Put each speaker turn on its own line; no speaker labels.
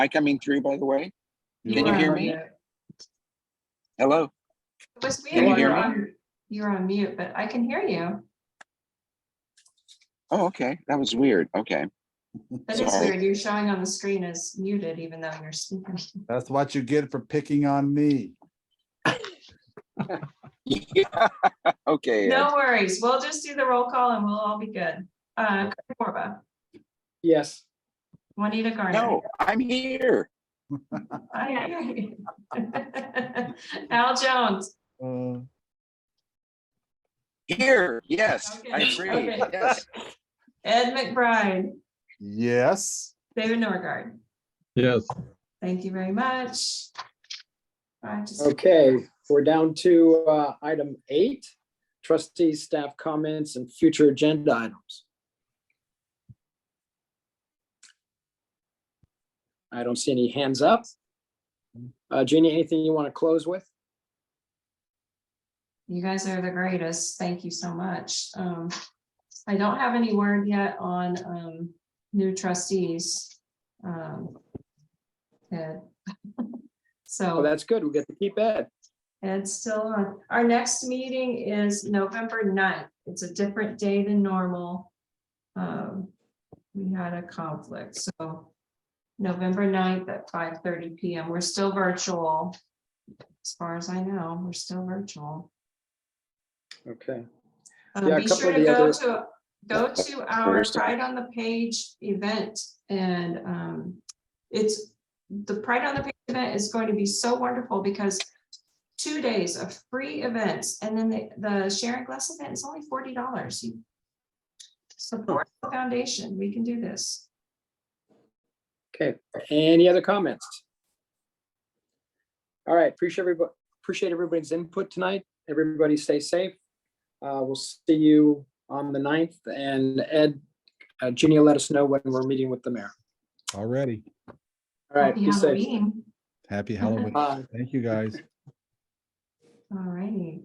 I coming through, by the way? Can you
are
hear
on
me?
mute.
Hello?
It was
you hear
weird. You're
me?
on, you're on mute, but I can hear you.
Oh, okay. That was weird. Okay.
That is
Sorry.
weird. You're showing on the screen as muted even though you're speaking.
That's what you get for picking on me.
Okay. Ed.
No worries. We'll just do the roll call and we'll all be good. Uh, Craig Borba,
Yes.
Juanita Garner.
No, I'm here.
I hear you. Al Jones.
Uh,
Here. Yes, I
Okay,
agree.
okay.
Yes.
Ed McBride,
Yes,
David Norgard.
Yes,
Thank you very much. I just-
Okay, we're down to uh, item eight, trustees, staff comments and future agenda items. I don't see any hands up. Uh, Jeannie, anything you want to close with?
You guys are the greatest. Thank you so much. Um, I don't have any word yet on, um, new trustees. Um, Ed. So
Oh, that's good. We get to keep Ed.
Ed's still on. Our next meeting is November 9th. It's a different day than normal. Um, we had a conflict, so November 9th at five thirty PM. We're still virtual. As far as I know, we're still virtual.
Okay,
Um,
Yeah, a
Be
couple
sure
of
to
the
go
other-
to, go to our Pride on the Page event and um, it's, the Pride on the Page event is going to be so wonderful because two days of free events and then the, the Sharing Glass event is only forty dollars. Support the foundation. We can do this.
okay. Any other comments? All right, appreciate everybody, appreciate everybody's input tonight. Everybody stay safe. Uh, We'll see you on the 9th and Ed, uh, Jeannie will let us know when we're meeting with the mayor.
already.
All right,
Happy
be safe.
Halloween.
Happy Halloween.
Bye.
Thank you, guys.
All righty.